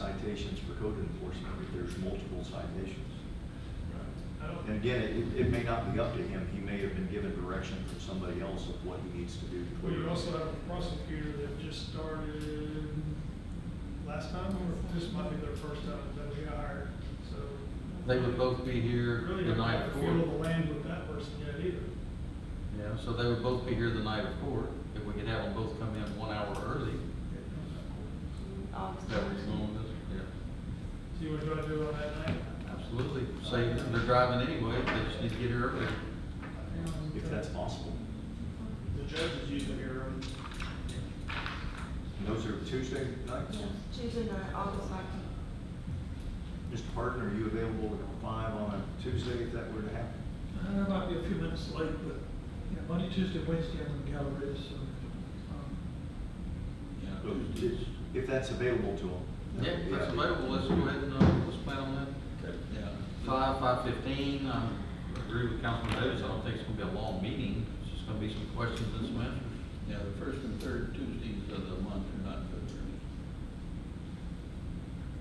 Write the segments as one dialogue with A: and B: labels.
A: citations for code enforcement if there's multiple citations.
B: I don't,
A: And again, it, it may not be up to him, he may have been given direction from somebody else of what he needs to do. to
B: well, you also have a prosecutor that just started last time, or this might be their first time that we hired, so.
C: They would both be here
B: Really
C: the
B: don't
C: night
B: have to feel the
C: before.
B: land with that person yet either.
C: Yeah, so they would both be here the night before. If we could have them both come in one hour early,
D: August.
C: that would be long, yeah.
B: See what do I do on that night?
C: Absolutely. Say, they're driving anyway, they just need to get here early.
A: If that's possible.
E: The judge is usually here,
A: And those are Tuesday nights?
D: Yes, Tuesday night, August nineteenth.
A: Mr. Harden, are you available at five on a Tuesday if that were to happen?
F: I know I might be a few minutes late, but, you know, Monday, Tuesday, Wednesday, I'm in Galleria, so, um,
B: Oh,
C: Yeah.
A: If- If that's available to him.
C: Yeah, if that's available, let's go ahead and, uh, let's plan on that.
F: okay.
C: Five, five fifteen, I agree with Councilman Davis, I don't think it's gonna be a long meeting. It's just gonna be some questions and some answers.
G: Yeah, the first and third Tuesdays of the month are not good for me.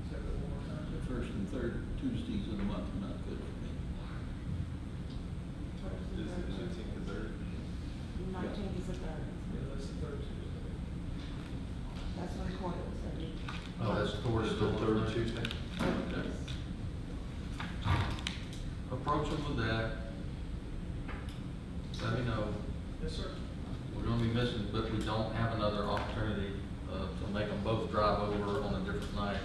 B: Say that one more time.
G: The first and third Tuesdays of the month are not good for me.
D: Nineteenth is the third.
B: Yeah, that's the third Tuesday.
D: That's when court is, I think.
C: Oh, that's
A: Or
C: towards
A: is the third Tuesday?
C: Okay. Approach them with that. Let me know.
B: Yes, sir.
C: We're gonna be missing, but we don't have another opportunity, uh, to make them both drive over on a different night.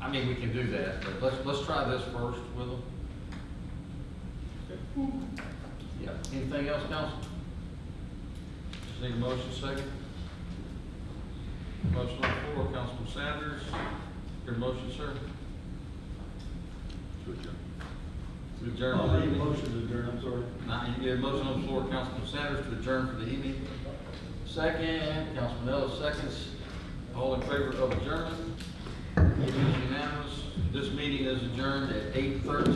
C: I mean, we can do that, but let's, let's try this first with them. Yeah, anything else, council? Just need a motion second. Motion on the floor, Councilman Sanders, your motion, sir?
A: To adjourn.
C: To adjourn.
E: I'll make a motion to adjourn, I'm sorry.
C: Now, you get a motion on the floor, Councilman Sanders, to adjourn for the evening. Second, Councilman Ellis, seconds. All in favor of adjournment? It is unanimous. This meeting is adjourned at eight thirteen.